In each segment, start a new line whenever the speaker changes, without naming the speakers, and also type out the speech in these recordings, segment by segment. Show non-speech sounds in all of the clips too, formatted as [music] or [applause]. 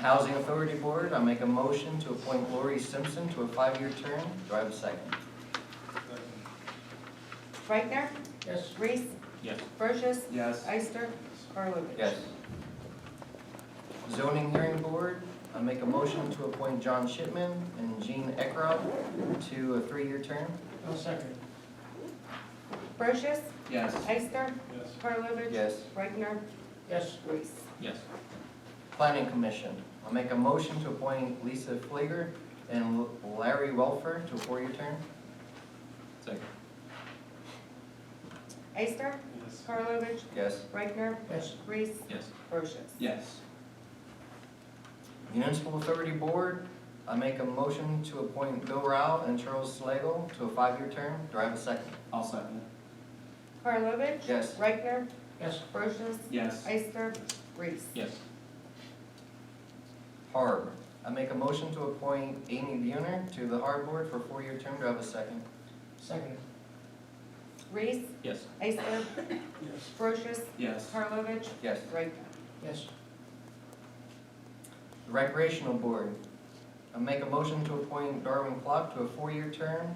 Housing Authority Board, I make a motion to appoint Lori Simpson to a five-year term. Do I have a second?
Reichtner?
Yes.
Reese?
Yes.
Brochus?
Yes.
Eister? Karlovic?
Yes. Zoning Hearing Board, I make a motion to appoint John Shipman and Jean Ekrop to a three-year term.
I'll second.
Brochus?
Yes.
Eister?
Yes.
Karlovic?
Yes.
Reichtner?
Yes.
Reese?
Yes.
Planning Commission, I make a motion to appoint Lisa Flieger and Larry Welfer to a four-year term.
Second.
Eister? Karlovic?
Yes.
Reichtner?
Yes.
Reese?
Yes.
Brochus?
Yes.
Municipal Authority Board, I make a motion to appoint Bill Rao and Charles Slagle to a five-year term. Do I have a second?
I'll second.
Karlovic?
Yes.
Reichtner?
Yes.
Brochus?
Yes.
Eister? Reese?
Yes.
Harb, I make a motion to appoint Amy Buhner to the Harb Board for a four-year term. Do I have a second?
Second.
Reese?
Yes.
Eister?
Yes.
Brochus?
Yes.
Karlovic?
Yes.
Reichtner?
Yes.
Recreational Board, I make a motion to appoint Darwin Clark to a four-year term,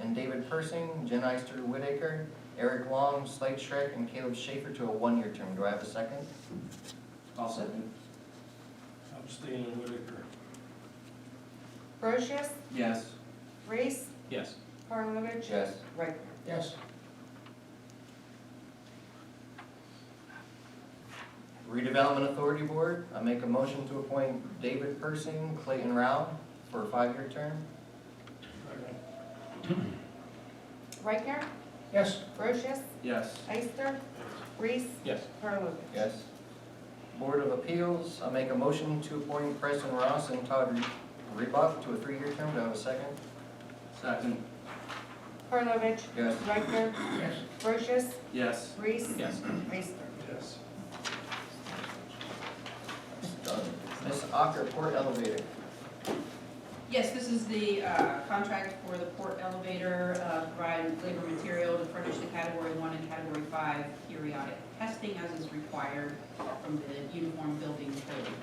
and David Persing, Jen Eister Whitaker, Eric Long, Slade Schreck, and Caleb Schaefer to a one-year term. Do I have a second?
I'll second.
I'm staying in Whitaker.
Brochus?
Yes.
Reese?
Yes.
Karlovic?
Yes.
Reichtner?
Yes.
Redevelopment Authority Board, I make a motion to appoint David Persing, Clayton Rao for a five-year term.
Reichtner?
Yes.
Brochus?
Yes.
Eister? Reese?
Yes.
Karlovic?
Yes. Board of Appeals, I make a motion to appoint Preston Ross and Todd Rebuff to a three-year term. Do I have a second?
Second.
Karlovic?
Yes.
Reichner?
Yes.
Brochus?
Yes.
Reese?
Yes.
Ister?
Yes.
Ms. Ocker, Port Elevator.
Yes, this is the uh, contract for the port elevator, uh, provide labor material to furnish the category one and category five periodic testing as is required from the uniform building code.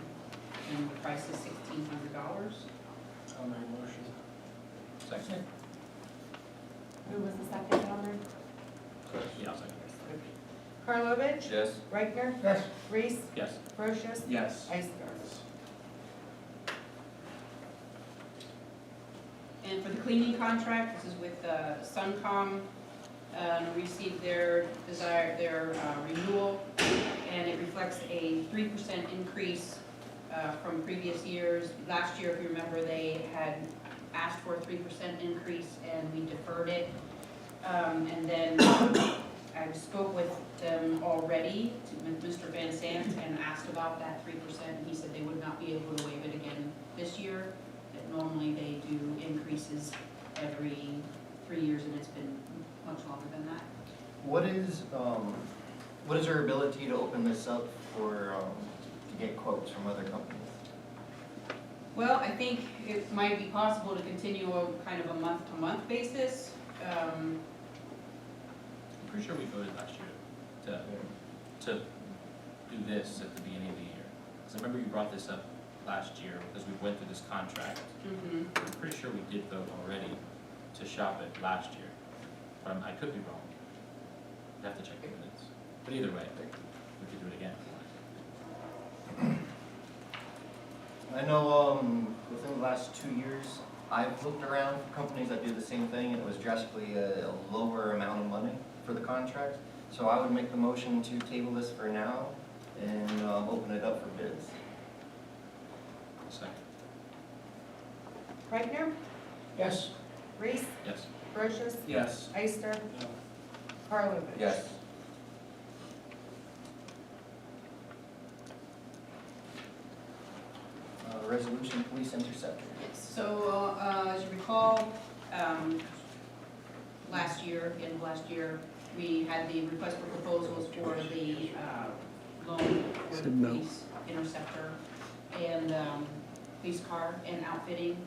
And the price is sixteen hundred dollars.
I'll make a motion.
Second.
Who was the second on there?
Yeah, I'll second.
Karlovic?
Yes.
Reichner?
Yes.
Reese?
Yes.
Brochus?
Yes.
Ister?
And for the cleaning contract, this is with uh, Suncom, um, received their desire, their uh, renewal, and it reflects a three percent increase uh, from previous years. Last year, if you remember, they had asked for a three percent increase, and we deferred it. Um, And then [coughs] I spoke with them already, to- with Mr. Van Sant, and asked about that three percent. He said they would not be able to waive it again this year that normally they do increases every three years, and it's been much longer than that.
What is, um, what is her ability to open this up for, um, to get quotes from other companies?
Well, I think it might be possible to continue a kind of a month-to-month basis. Um,
I'm pretty sure we voted last year to, to do this at the beginning of the year. Because I remember you brought this up last year because we went through this contract.
mhm.
I'm pretty sure we did vote already to shop it last year, but I'm- I could be wrong. I'd have to check the minutes. But either way, we could do it again.
I know, um, within the last two years, I've looked around for companies that do the same thing, and it was drastically a, a lower amount of money for the contract. So I would make the motion to table this for now and, um, open it up for bids.
Second.
Reichner?
Yes.
Reese?
Yes.
Brochus?
Yes.
Ister?
No.
Karlovic?
Yes. Uh, resolution police interceptor.
So, uh, as you recall, um, last year, end of last year, we had the request for proposals for the uh, loan for the police interceptor and um, police car and outfitting.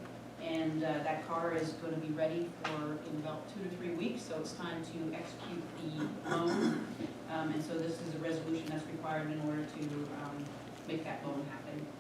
And uh, that car is going to be ready for in about two to three weeks, so it's time to execute the loan. Um, And so this is a resolution that's required in order to um, make that loan happen.